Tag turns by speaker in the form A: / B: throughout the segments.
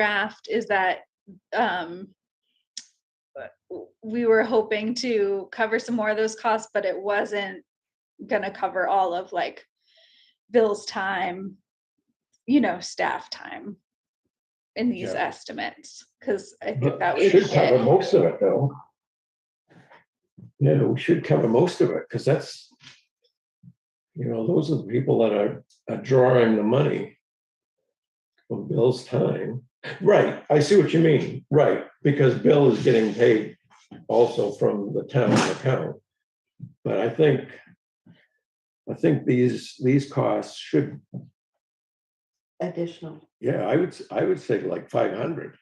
A: draft is that um, we were hoping to cover some more of those costs, but it wasn't going to cover all of like Bill's time, you know, staff time in these
B: Yeah.
A: estimates, because I think that
B: But
A: would
B: Should cover
A: hit.
B: most of it though. Yeah, we should cover most of it, because that's, you know, those are the people that are, are drawing the money from Bill's time. Right, I see what you mean, right, because Bill is getting paid also from the town account. But I think, I think these, these costs should,
C: additional.
B: yeah, I would, s- I would say like five hundred.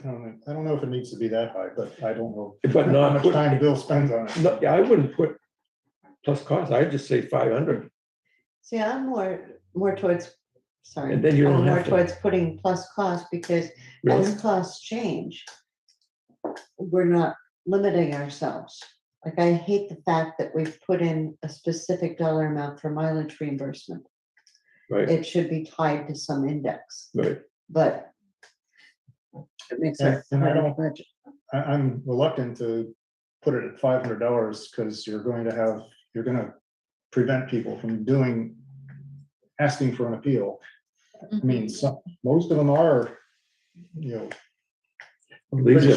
D: I don't know, I don't know if it needs to be that high, but I don't know.
B: But not
D: How much
B: put-
D: time Bill spends on it.
B: No, yeah, I wouldn't put plus cost, I'd just say five hundred.
C: See, I'm more, more towards, sorry.
B: And then you
C: I'm
B: don't
C: More
B: have to.
C: towards putting plus cost because as costs change, we're not limiting ourselves. Like I hate the fact that we've put in a specific dollar amount for mileage reimbursement.
B: Right,
C: It should be tied to some index,
B: right.
C: but it makes
D: Yeah,
C: us.
D: and I
C: part of the
D: don't-
C: budget.
D: I, I'm reluctant to put it at five hundred dollars because you're going to have, you're gonna prevent people from doing, asking for an appeal. I
A: Mm-hmm.
D: mean, some, most of them are, you
B: These
D: know, pretty
B: are appeals.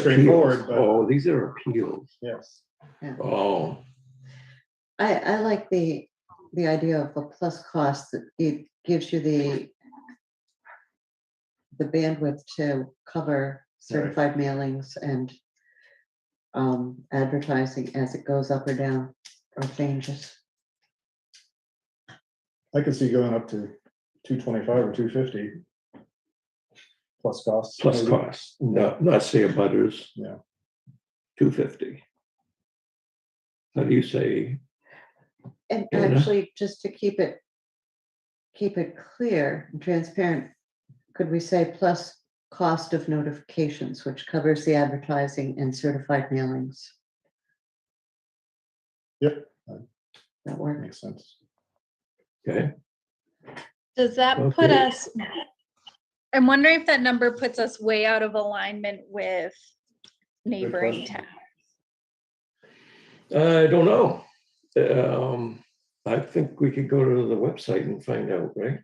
D: straightforward, but-
B: Oh, these are appeals.
D: yes.
B: Oh,
C: I, I like the, the idea of a plus cost that it gives you the the bandwidth to cover certified mailings and um, advertising as it goes up or down or changes.
D: I could see going up to two twenty-five or two fifty. Plus costs.
B: plus
D: maybe.
B: cost, no, not say a butters.
D: Yeah.
B: Two fifty. How do you say,
C: And
B: Yeah.
C: actually, just to keep it, keep it clear and transparent, could we say plus cost of notifications, which covers the advertising and certified mailings?
D: Yep.
C: That work?
D: Makes sense.
B: okay,
A: Does that put
B: Okay.
A: us, I'm wondering if that number puts us way out of alignment with neighboring
D: question.
A: towns.
B: I don't know. Um, I think we could go to the website and find out, right?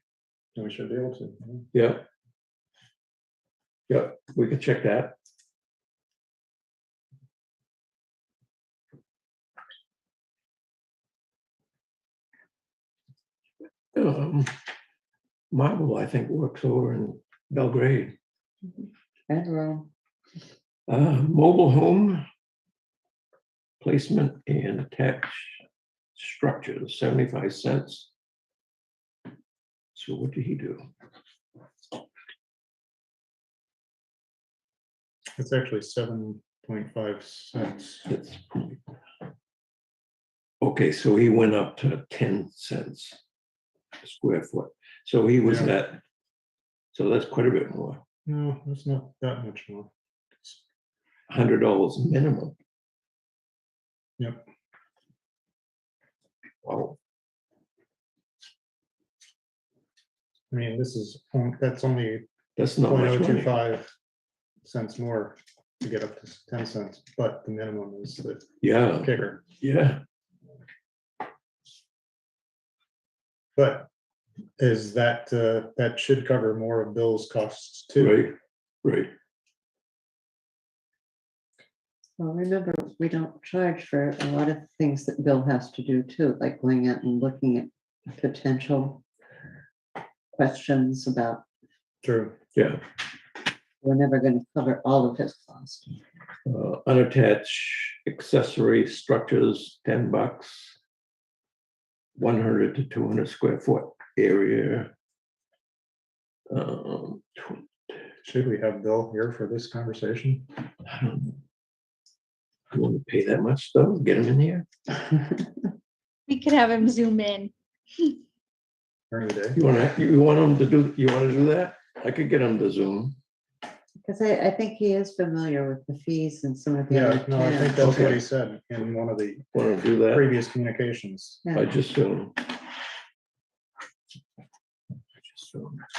D: And we should be able to. yeah.
B: Yeah. Yeah, we could check that. Um, Marvel, I think, works over in Belgrade.
C: And Rome.
B: Uh, Mobile home placement and attached structures, 75 cents. So what did he do?
D: It's actually seven point five cents.
B: That's pretty- Okay, so he went up to ten cents a square foot, so he was
D: Yeah.
B: at, so that's quite a bit more,
D: No, that's not that much more.
B: hundred dollars minimum.
D: Yep.
B: Wow,
D: I mean, this is, on- that's only
B: that's not
D: point oh
B: much
D: two
B: money,
D: five cents more to get up to ten cents, but the minimum is the
B: yeah,
D: kicker.
B: yeah,
D: But is that, uh, that should cover more of Bill's costs too.
B: right, right,
C: Well, remember, we don't charge for a lot of things that Bill has to do too, like going out and looking at potential questions about,
D: True.
B: yeah.
C: we're never going to cover all of his costs.
B: Uh, unattached accessory structures, ten bucks. One hundred to two hundred square foot area. Um, tw-
D: Should we have Bill here for this conversation?
B: I don't know. You want to pay that much though, get them in here,
A: We could have him zoom in.
D: during the day?
B: you wanna, you want them to do, you wanna do that? I could get them to Zoom,
C: Because I, I think he is familiar with the fees and some of the
D: Yeah,
C: other
D: no, I
C: towns.
D: think that's what
B: Okay.
D: he said in one of the
B: wanna do that,
D: previous communications.
C: Yeah.
B: I just Zoom. so.